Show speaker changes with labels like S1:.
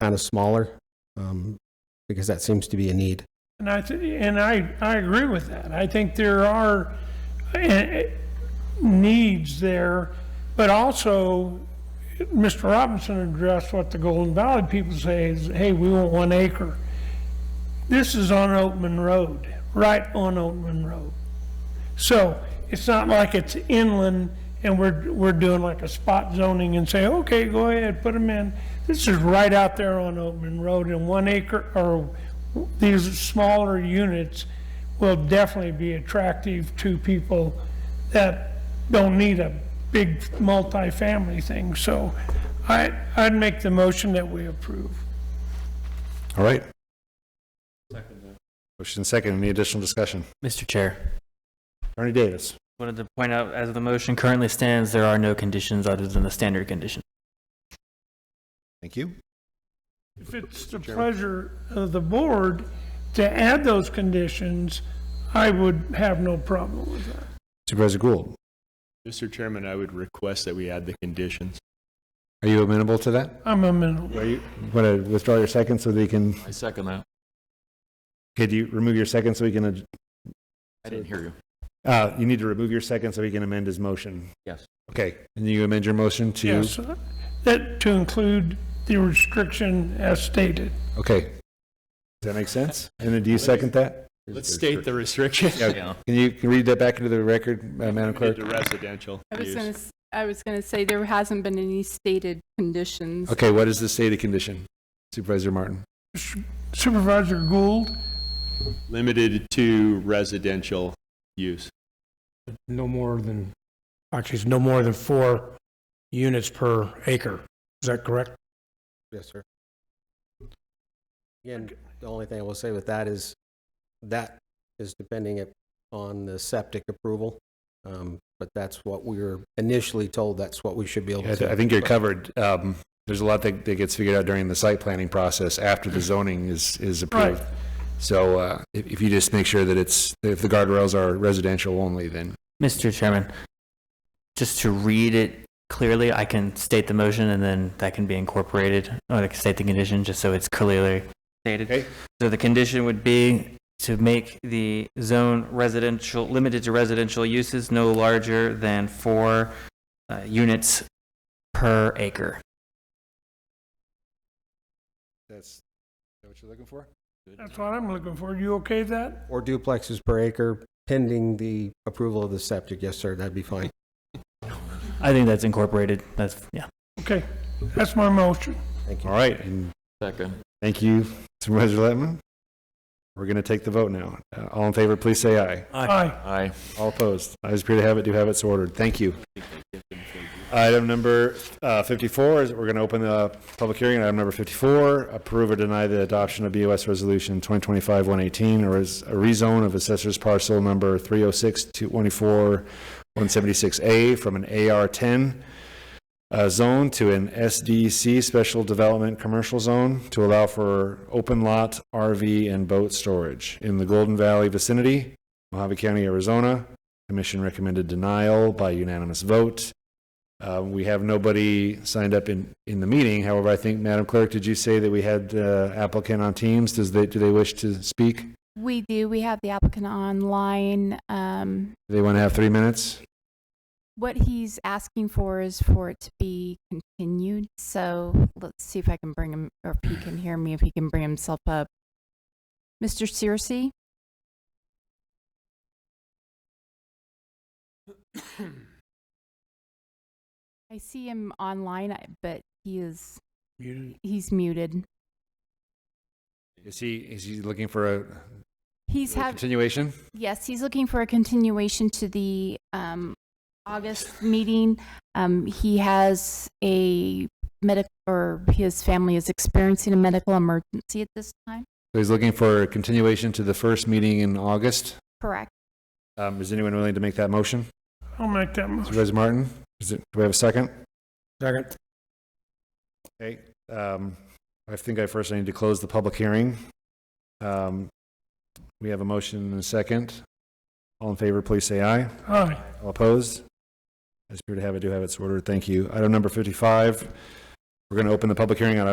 S1: kind of smaller, um, because that seems to be a need.
S2: And I, th- and I, I agree with that. I think there are eh, needs there, but also, Mr. Robinson addressed what the Golden Valley people say is, hey, we want one acre. This is on Oatman Road, right on Oatman Road. So it's not like it's inland and we're, we're doing like a spot zoning and say, okay, go ahead, put them in. This is right out there on Oatman Road and one acre, or these smaller units will definitely be attractive to people that don't need a big multifamily thing. So I, I'd make the motion that we approve.
S3: All right. Motion second, any additional discussion?
S4: Mr. Chair,
S3: Attorney Davis.
S4: wanted to point out, as the motion currently stands, there are no conditions other than the standard condition.
S3: Thank you.
S2: If it's the pleasure of the board to add those conditions, I would have no problem with that.
S3: Supervisor Gould,
S5: Mr. Chairman, I would request that we add the conditions.
S3: are you amenable to that?
S2: I'm amenable.
S3: Are you going to withdraw your second so they can,
S5: I second that.
S3: could you remove your second so we can, ad-
S5: I didn't hear you.
S3: uh, you need to remove your second so he can amend his motion?
S5: Yes.
S3: Okay, and you amend your motion to?
S2: Yes, that to include the restriction as stated.
S3: Okay. Does that make sense? And then do you second that?
S5: Let's state the restriction
S3: Yeah. Can you can you read that back into the record, uh, Madam Clerk?
S5: to residential
S6: I was going
S5: use.
S6: to, I was going to say there hasn't been any stated conditions.
S3: Okay, what is the state of condition? Supervisor Martin?
S2: Supervisor Gould,
S5: Limited to residential use.
S7: no more than, actually, it's no more than four units per acre. Is that correct?
S1: Yes, sir. Again, the only thing I will say with that is, that is depending on the septic approval. Um, but that's what we were initially told, that's what we should be able
S3: I,
S1: to.
S3: th- I think you're covered. Um, there's a lot that, that gets figured out during the site planning process after the zoning is, is approved.
S2: Right.
S3: So, uh, if, if you just make sure that it's, if the guardrails are residential only, then
S4: Mr. Chairman, just to read it clearly, I can state the motion and then that can be incorporated, or I can state the condition, just so it's clearly
S3: Okay.
S4: stated. So the condition would be to make the zone residential, limited to residential uses, no larger than four uh, units per acre.
S3: that's what you're looking for?
S2: that's what I'm looking for. You okay with that?
S1: Or duplexes per acre pending the approval of the septic, yes, sir, that'd be fine.
S4: I think that's incorporated, that's, yeah.
S2: Okay, that's my motion.
S1: Thank you.
S3: All right. And
S5: Second.
S3: thank you, Supervisor Letman. We're going to take the vote now. Uh, all in favor, please say aye.
S2: Aye.
S5: Aye.
S3: All opposed? Ayes appear to have it, do have it, so ordered. Thank you. Item number uh, 54 is, we're going to open the public hearing. Item number 54, approve or deny the adoption of BOS Resolution 2025-118, or is a rezone of assessor's parcel number 306-224-176A from an AR-10 uh, zone to an SDC Special Development Commercial Zone to allow for open lot RV and boat storage in the Golden Valley vicinity, Mojave County, Arizona. Commission recommended denial by unanimous vote. Uh, We have nobody signed up in, in the meeting. However, I think, Madam Clerk, did you say that we had uh, applicant on Teams? Does they, do they wish to speak? Do
S6: We do, we have the applicant online. Um,
S3: they want to have three minutes?
S6: What he's asking for is for it to be continued, so let's see if I can bring him, or if he can hear me, if he can bring himself up. Mr. Searcy? I see him online, I- but he is,
S7: Muted.
S6: he's muted.
S3: Is he, is he looking for a
S6: He's having.
S3: continuation?
S6: Yes, he's looking for a continuation to the um, August meeting. Um, He has a medic, or his family is experiencing a medical emergency at this time.
S3: So He's looking for a continuation to the first meeting in August.
S6: Correct.
S3: Um, Is anyone willing to make that motion?
S2: I'll make that motion.
S3: Supervisor Martin, is it, do we have a second?
S7: Second.
S3: Okay, um, I think I first need to close the public hearing. Um, we have a motion and a second. All in favor, please say aye.
S2: Aye.
S3: All opposed? I appear to have it, do have it, so ordered. Thank you. Item number fifty-five, we're going to open the public hearing on